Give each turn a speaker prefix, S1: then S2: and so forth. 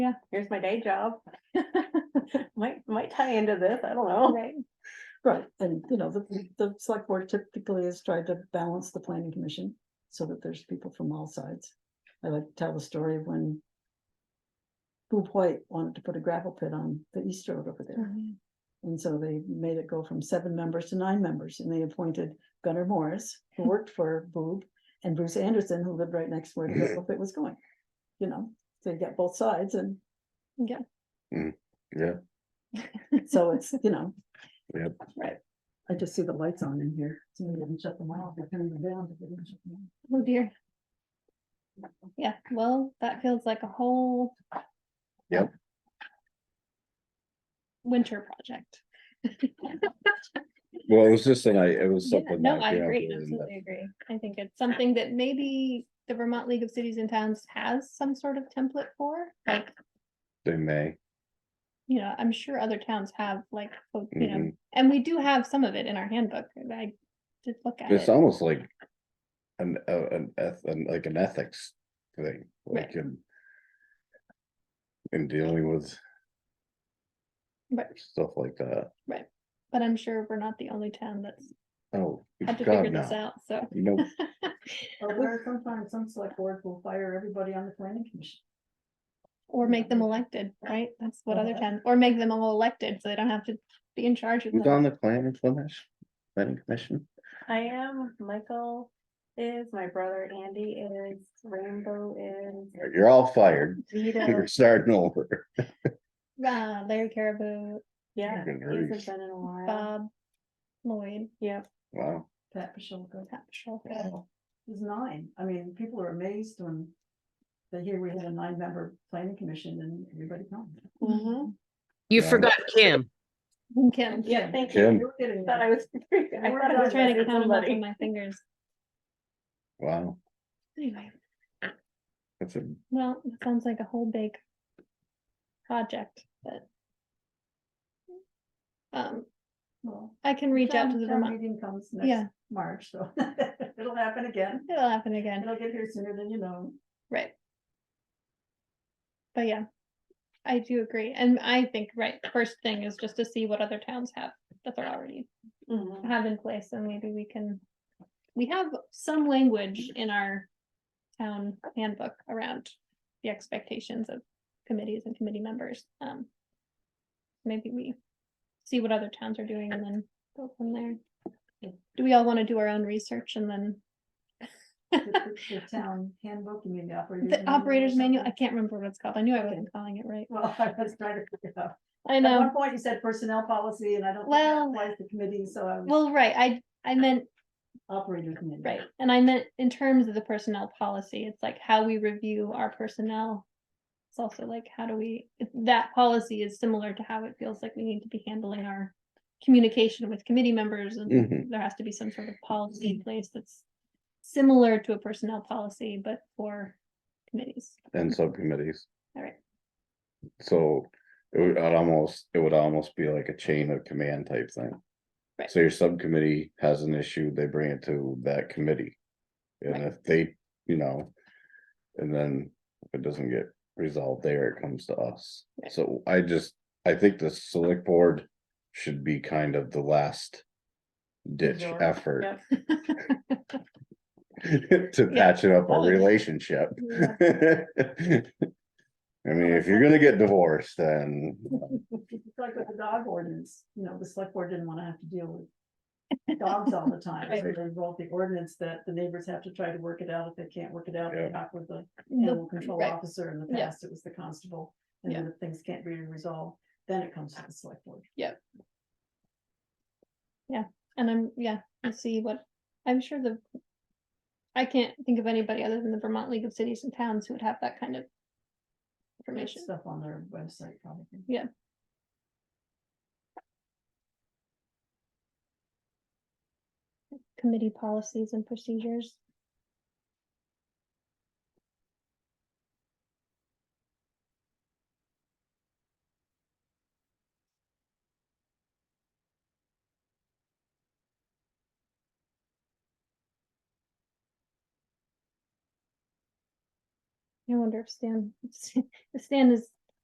S1: yeah, here's my day job. Might, might tie into this, I don't know.
S2: Right.
S3: Right, and you know, the, the select board typically has tried to balance the planning commission so that there's people from all sides. I like to tell the story of when Boob White wanted to put a gravel pit on the East Road over there. And so they made it go from seven members to nine members and they appointed Gunnar Morris, who worked for Boob, and Bruce Anderson, who lived right next to where the
S4: Mm-hmm.
S3: gravel pit was going. You know, so you got both sides and
S4: Mm, Yeah,
S3: so it's, you know.
S4: Yep.
S1: Right.
S3: I just see the lights on in here. So we didn't shut them off. I turned them down. but they didn't shut them off.
S2: Oh dear. Yeah, well, that feels like a whole.
S4: Yep.
S2: Winter project.
S4: well, it was this thing, I, it was
S2: Yeah,
S4: something.
S2: no,
S4: that
S2: I
S4: came up
S2: agree,
S4: with, and
S2: absolutely agree. I think it's something that maybe the Vermont League of Cities and Towns has some sort of template for, like,
S4: They may,
S2: you know, I'm sure other towns have like, oh, you know,
S4: Mhm.
S2: and we do have some of it in our handbook. and I did look at
S4: it's
S2: it.
S4: almost like an, uh, an, eth- an, like an ethics thing, like in in dealing with
S2: Right,
S4: stuff like that.
S2: but I'm sure we're not the only town that's
S4: Oh,
S2: had to figure
S4: God,
S2: this
S4: no.
S2: out, so.
S4: You know,
S3: Or where sometimes some select boards will fire everybody on the planning commission.
S2: Or make them elected, right? That's what other towns, or make them all elected, so they don't have to be in charge of
S4: who's
S2: them.
S4: on the planning commission, planning commission?
S1: I am, Michael is, my brother Andy is, Rainbow is,
S4: You're all fired,
S1: Vito,
S4: you're starting over.
S2: Uh, Larry Caribou,
S1: yeah,
S4: Good
S1: he hasn't
S4: grief.
S1: been in a while.
S2: Bob, Lloyd,
S1: Yep,
S4: Wow,
S3: Pat Pashilko.
S2: Pat Schultz.
S3: There's nine. I mean, people are amazed when they hear we had a nine member planning commission and everybody comes.
S1: Mhm.
S5: You
S4: Yeah.
S5: forgot Kim.
S2: And Kim.
S1: yeah, thank
S4: Kim.
S1: you.
S3: You're getting
S1: Thought I
S3: there.
S1: was, I
S3: We're
S1: thought
S2: I
S1: I was
S2: was trying to
S1: missing
S2: count them up on
S1: somebody.
S2: my fingers.
S4: wow,
S2: Anyway,
S4: that's a,
S2: well, it sounds like a whole big project, but. Um,
S3: Well,
S2: I can reach out
S3: town-
S2: to the
S3: town
S2: Vermont,
S3: Meeting comes
S2: Yeah.
S3: next March, so it'll happen again.
S2: it'll happen again.
S3: It'll get here sooner than you know.
S2: Right. But yeah, I do agree. And I think, right, the first thing is just to see what other towns have that they're already
S1: Mhm.
S2: have in place and maybe we can. We have some language in our town handbook around the expectations of committees and committee members. Um. Maybe we see what other towns are doing and then go from there. Do we all want to do our own research and then
S3: The the town handbook, you mean the operator's.
S2: the
S3: manual or
S2: operator's manual? I
S3: something?
S2: can't remember what it's called. I knew I
S3: Okay.
S2: wasn't calling it right.
S3: Well, I was trying to figure it out.
S2: I
S3: At one
S2: know.
S3: point you said personnel policy and I don't. think
S2: Well-
S3: that applies to committee, so I was
S2: Well, right, I, I meant,
S3: operator committee.
S2: right, and I meant in terms of the personnel policy, it's like how we review our personnel. It's also like, how do we, that policy is similar to how it feels like we need to be handling our communication with committee members, and
S4: mhm,
S2: there has to be some sort of policy in place that's similar to a personnel policy, but for committees.
S4: and subcommittees.
S2: All right.
S4: So it would I'd almost, it would almost be like a chain of command type thing.
S2: Right.
S4: So your subcommittee has an issue, they bring it to that committee. And
S2: Right.
S4: if they, you know, and then if it doesn't get resolved there, it comes to us.
S2: Right.
S4: So I just, I think the select board should be kind of the last ditch
S1: Resort,
S4: effort
S1: Yep.
S4: to
S2: Yeah.
S4: patch up
S2: Oh,
S4: a
S2: yeah.
S4: relationship.
S2: Yeah.
S4: I mean, if you're gonna get divorced, then
S3: It's like with the dog ordinance, you know, the select board didn't want to have to deal with dogs all the time. So
S4: Right.
S3: they wrote the ordinance that the neighbors have to try to work it out. If they can't work it out, they
S4: Yeah.
S3: talk with the
S2: The-
S3: animal control
S2: right.
S3: officer. In the
S2: Yeah.
S3: past, it was the constable. And
S2: Yeah.
S3: then if things can't be resolved, then it comes to the select board.
S2: And I'm, yeah, we'll see what, I'm sure the. I can't think of anybody other than the Vermont League of Cities and Towns who would have that kind of.
S3: There's
S2: Information,
S3: Stuff on their website probably.
S2: committee policies and procedures. I wonder if Stan, if Stan is